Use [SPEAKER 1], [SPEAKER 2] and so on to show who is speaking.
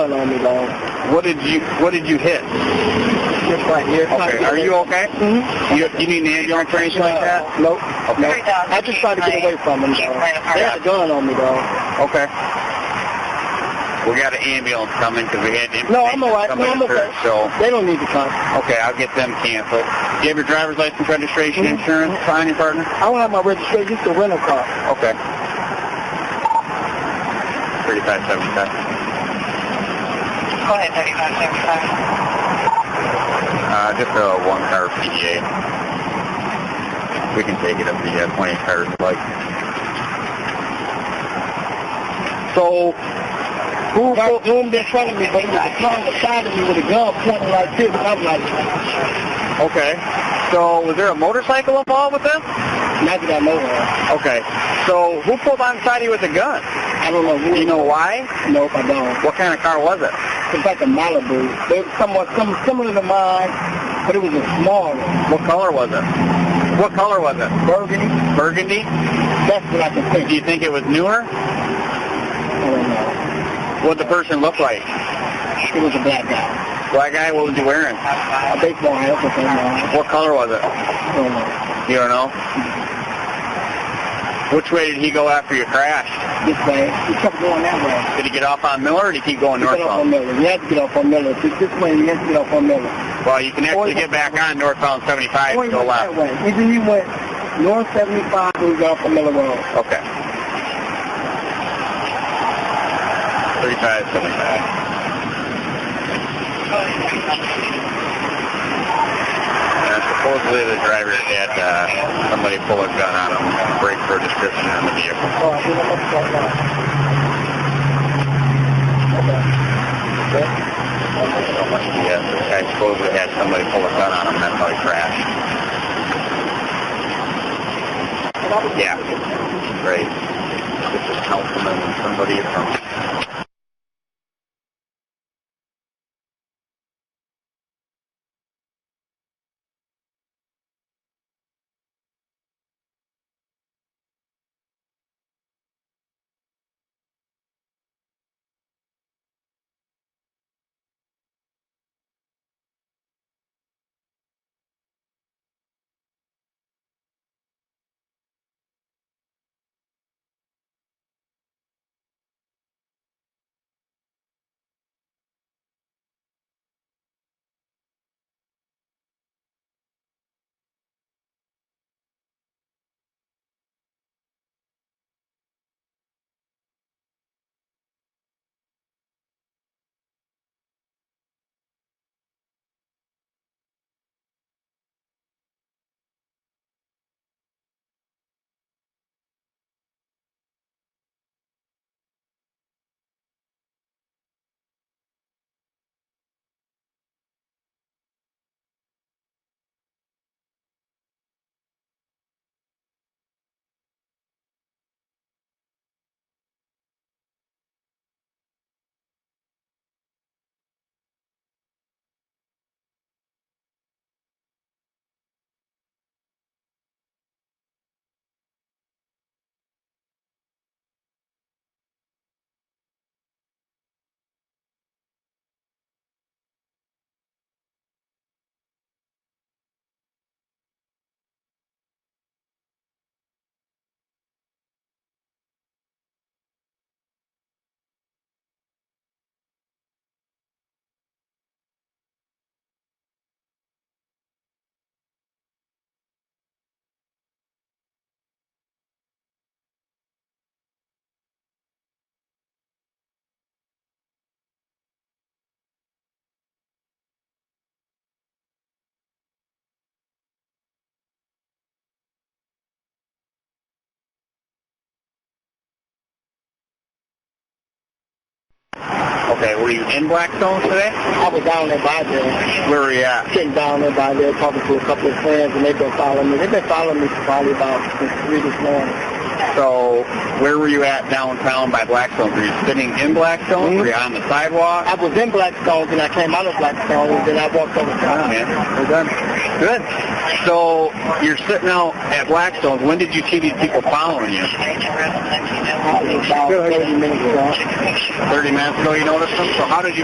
[SPEAKER 1] pulling on me, dog.
[SPEAKER 2] What did you What did you hit?
[SPEAKER 1] Just right here.
[SPEAKER 2] Okay. Are you okay? Mm-hmm. You, you need an ambulance or anything like that?
[SPEAKER 1] Nope.
[SPEAKER 2] Okay.
[SPEAKER 1] Nope. I just tried to get away from them, dog. They had a gun on me, dog.
[SPEAKER 2] Okay. We got an ambulance coming because we had
[SPEAKER 1] No, I'm all right. No,
[SPEAKER 2] somebody
[SPEAKER 1] I'm okay.
[SPEAKER 2] hurt, so
[SPEAKER 1] They don't need to come.
[SPEAKER 2] okay, I'll get them canceled. Do you have your driver's license, registration,
[SPEAKER 1] Mhm.
[SPEAKER 2] insurance, sign your partner?
[SPEAKER 1] I don't have my registration. It's a rental car.
[SPEAKER 2] Okay. Thirty-five seventy-five.
[SPEAKER 3] Go ahead, 3575.
[SPEAKER 2] Uh, just a one-car PDA. We can take it up to uh, twenty cars, like.
[SPEAKER 1] So, who right zoomed in front of me, but he was trying to side of me with a gun pointing like this, and I'm like,
[SPEAKER 2] Okay. So was there a motorcycle involved with them?
[SPEAKER 1] not that I know of.
[SPEAKER 2] Okay. So who pulled onside you with a gun?
[SPEAKER 1] I don't know who.
[SPEAKER 2] Do you know why?
[SPEAKER 1] Nope, I don't.
[SPEAKER 2] What kind of car was it?
[SPEAKER 1] It's like a Malibu. They were somewhat some, similar to mine, but it was a small one.
[SPEAKER 2] What color was it? What color was it?
[SPEAKER 1] Burgundy.
[SPEAKER 2] Burgundy?
[SPEAKER 1] That's what I can
[SPEAKER 2] Do
[SPEAKER 1] think.
[SPEAKER 2] you think it was newer?
[SPEAKER 1] I don't know.
[SPEAKER 2] What the person look like?
[SPEAKER 1] It was a black guy.
[SPEAKER 2] Black guy, what was he wearing?
[SPEAKER 1] A baseball hat, that's what I
[SPEAKER 2] What color was it?
[SPEAKER 1] don't know.
[SPEAKER 2] You don't know? Which way did he go after your crash?
[SPEAKER 1] This way. He kept going that way.
[SPEAKER 2] Did he get off on Miller or did he keep going
[SPEAKER 1] He got off on
[SPEAKER 2] northbound?
[SPEAKER 1] Miller. He had to get off on Miller. This this way, he had to get off on Miller.
[SPEAKER 2] Well, you can
[SPEAKER 1] Or
[SPEAKER 2] actually
[SPEAKER 1] he-
[SPEAKER 2] get back on northbound
[SPEAKER 1] Or
[SPEAKER 2] 75
[SPEAKER 1] he
[SPEAKER 2] and go
[SPEAKER 1] went that
[SPEAKER 2] left.
[SPEAKER 1] way. Either he went north 75 or he got off on Miller Road.
[SPEAKER 2] Okay. 35, 75.
[SPEAKER 3] Go ahead, 3575.
[SPEAKER 2] Uh, supposedly the driver had uh, somebody pull a gun on him and break for a description on the vehicle.
[SPEAKER 1] Oh, I think I'm up to that now. Okay. Okay.
[SPEAKER 2] Yeah, the guy supposedly had somebody pull a gun on him and that's how he crashed. Yeah, right. This is councilman and somebody from... Okay, were you in Blackstone today?
[SPEAKER 1] I was down there by there.
[SPEAKER 2] Where were you at?
[SPEAKER 1] sitting down there by there talking to a couple of friends, and they've been following me. They've been following me for probably about since three this morning.
[SPEAKER 2] So, where were you at downtown by Blackstone? Were you sitting in Blackstone? Were you on the sidewalk?
[SPEAKER 1] I
[SPEAKER 2] Oh,
[SPEAKER 1] was in Blackstone, and I came out of Blackstone, and then I walked over to
[SPEAKER 2] Good. Good. So you're sitting out at Blackstone. When did you see these people following you?
[SPEAKER 1] About 30 minutes, uh,
[SPEAKER 2] 30 minutes ago you noticed them? So how did you